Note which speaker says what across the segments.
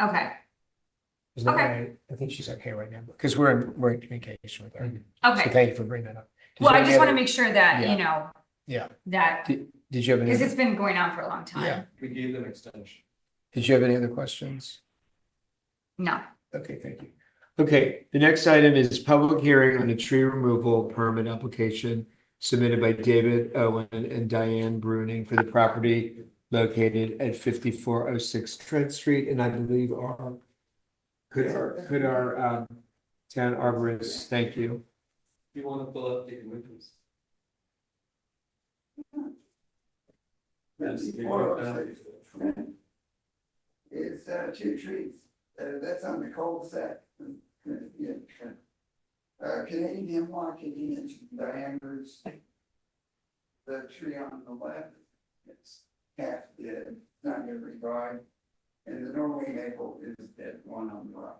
Speaker 1: Okay,
Speaker 2: Is that
Speaker 1: Okay.
Speaker 2: right? I think she's okay right now, because we're, in- we're in communication with
Speaker 3: Mm-hmm.
Speaker 2: her. So
Speaker 1: okay.
Speaker 2: thank you for bringing that up. Did
Speaker 1: Well,
Speaker 2: you
Speaker 1: I
Speaker 2: have
Speaker 1: just want to
Speaker 2: any
Speaker 1: make sure that,
Speaker 2: Yeah.
Speaker 1: you know,
Speaker 2: other-
Speaker 1: that,
Speaker 2: Yeah. Did, did you have any,
Speaker 1: because
Speaker 2: other-
Speaker 1: it's been going on for a long
Speaker 2: Yeah.
Speaker 1: time.
Speaker 3: We gave them extension.
Speaker 2: did you have any other questions?
Speaker 1: No,
Speaker 2: Okay, thank you. Okay, the next item is public hearing on a tree removal permit application submitted by David Owen and Diane Bruning for the property located at fifty-four oh six Trent Street, and I believe our could our, could our, um, town arborist, thank you.
Speaker 3: You wanna pull up the windows? Yes, you want that.
Speaker 4: It's uh two trees, uh that's on the cul-de-sac. Yeah. Uh Canadian Washington is diameters. The tree on the left, it's half dead, not every vine. And the Norway maple is dead, one on the right.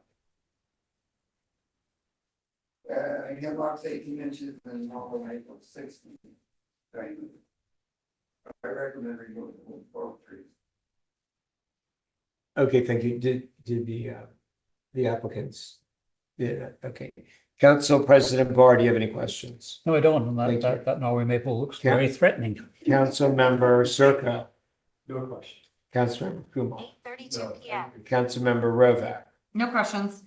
Speaker 4: Uh hemlock's eighteen inches and Norway maple's sixteen. diameter. I recommend removing both trees.
Speaker 2: Okay, thank you. Did, did the, uh, the applicants? Yeah, okay. Council President Barr, do you have any questions?
Speaker 5: No, I don't. And
Speaker 2: Thank
Speaker 5: that,
Speaker 2: you.
Speaker 5: that, that Norway maple looks
Speaker 2: Yeah.
Speaker 5: very threatening.
Speaker 2: Council Member Circa,
Speaker 3: No question.
Speaker 2: Councilmember Kumar,
Speaker 6: Eight thirty-two
Speaker 3: No.
Speaker 6: PM.
Speaker 2: Councilmember Rovak.
Speaker 1: no questions.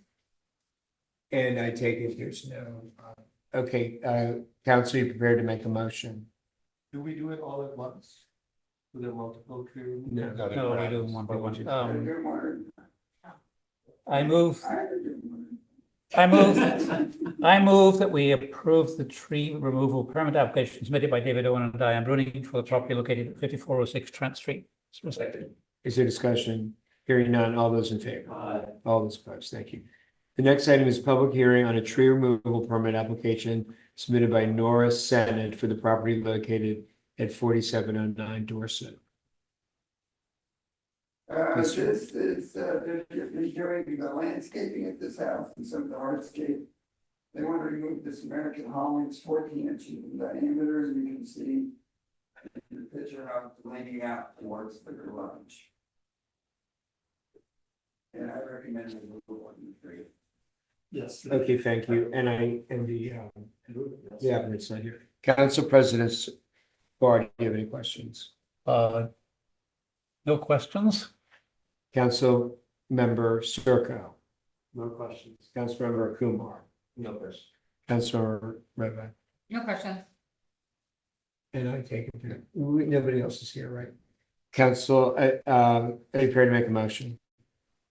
Speaker 2: And I take it there's no, uh, okay, uh, council, you prepared to make a motion?
Speaker 3: Do we do it all at once? With the multiple tree? removal?
Speaker 2: No.
Speaker 5: No, we do them one by one.
Speaker 4: They're
Speaker 5: Um,
Speaker 4: doing one.
Speaker 5: I move,
Speaker 4: I heard you.
Speaker 5: I move, I move that we approve the tree removal permit application submitted by David Owen and Diane Bruning for the property located at fifty-four oh six Trent Street.
Speaker 2: Is there discussion? Hearing none, all those in favor?
Speaker 3: Uh,
Speaker 2: All those opposed, thank you. The next item is public hearing on a tree removal permit application submitted by Nora Senate for the property located at forty-seven oh nine Dorset.
Speaker 4: Uh,
Speaker 2: Yes,
Speaker 4: this
Speaker 2: sir.
Speaker 4: is, uh, they're just redoing the landscaping at this house and some of the hardscape. They want to remove this American Hollings fourteen inch in diameter, as you can see. In the picture of leaning out towards the garage. And I recommend removal of the tree.
Speaker 3: Yes.
Speaker 2: Okay, thank you. And I, and the, um, the applicant's not here. Council President Barr, do you have any questions?
Speaker 5: Uh, no questions?
Speaker 2: Council Member Circo,
Speaker 3: No questions.
Speaker 2: Councilmember Kumar,
Speaker 3: No question.
Speaker 2: Councilmember Reva.
Speaker 1: No questions.
Speaker 2: And I take it, that- we- nobody else is here, right? Council, uh, um, are you prepared to make a motion?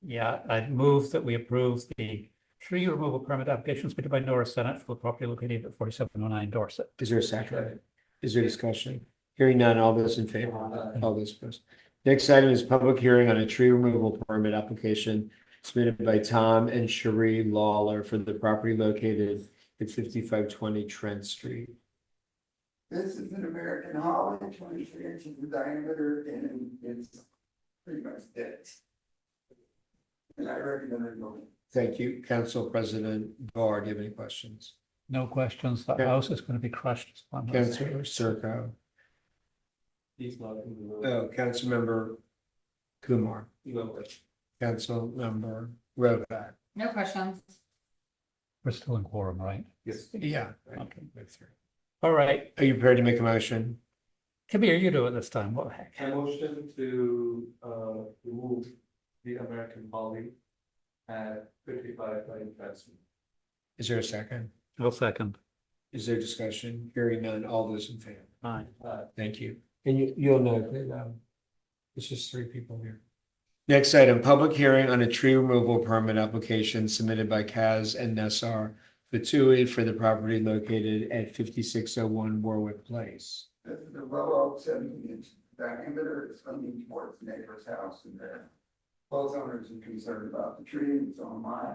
Speaker 5: Yeah, I'd move that we approve the tree removal permit application submitted by Nora Senate for the property located at forty-seven oh nine Dorset.
Speaker 2: Is there a second? Is there discussion? Hearing none, all those in favor,
Speaker 3: Aye.
Speaker 2: all those opposed. Next item is public hearing on a tree removal permit application submitted by Tom and Cherie Lawler for the property located at fifty-five twenty Trent Street.
Speaker 4: This is an American Holland, twenty-three inches in diameter, and it's pretty much dead. And I recommend removal.
Speaker 2: Thank you, Council President Barr, do you have any questions?
Speaker 5: No questions. That
Speaker 2: Yeah.
Speaker 5: house is going to be crushed.
Speaker 2: Councilor Circo,
Speaker 3: He's not in the room.
Speaker 2: oh, Councilmember Kumar,
Speaker 3: No question.
Speaker 2: Councilmember Rovak.
Speaker 1: No questions.
Speaker 5: We're still in quorum, right?
Speaker 3: Yes.
Speaker 2: Yeah.
Speaker 5: Okay. All right.
Speaker 2: Are you prepared to make a motion?
Speaker 5: Kabir, you do it this time. What the heck?
Speaker 3: I motion to uh remove the American Holly at fifty-five by investment.
Speaker 2: Is there a second?
Speaker 5: I'll second.
Speaker 2: Is there discussion? Hearing none, all those in favor?
Speaker 5: Aye.
Speaker 3: Uh,
Speaker 2: Thank you. And you, you'll note that, um, it's just three people here. Next item, public hearing on a tree removal permit application submitted by Kaz and Nassar Fatui for the property located at fifty-six oh one Warwick Place.
Speaker 4: This is a low oak seventeen inch diameter, it's leaning towards the neighbor's house and there. Both owners are concerned about the tree and so am I.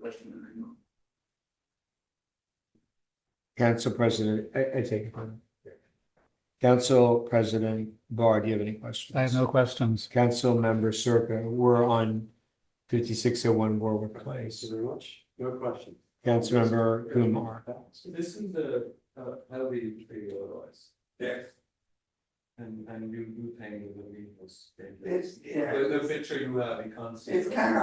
Speaker 4: Listen to them.
Speaker 2: Council President, I, I take it. from- Council President Barr, do you have any questions?
Speaker 5: I have no questions.
Speaker 2: Council Member Circa, we're on fifty-six oh one Warwick
Speaker 3: Thank you
Speaker 2: Place.
Speaker 3: very much. No question.
Speaker 2: Councilmember Kumar.
Speaker 3: This is the uh healthy tree otherwise.
Speaker 4: Yes.
Speaker 3: And and you do think the leaf was.
Speaker 4: It's, yeah,
Speaker 3: The the picture you have, you can't see.
Speaker 4: it's
Speaker 3: it.
Speaker 4: kind of